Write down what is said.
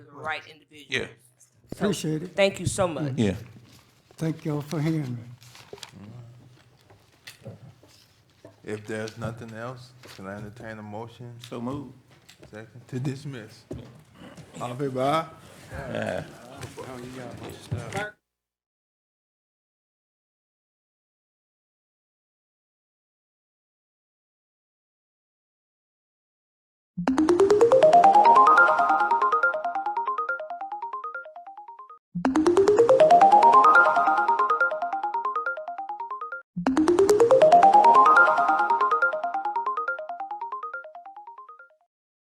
right individuals. Yeah. So, Appreciate it. Thank you so much. Yeah. Thank y'all for hearing me. If there's nothing else, can I entertain a motion? So move. Second, to dismiss. All in favor, aye?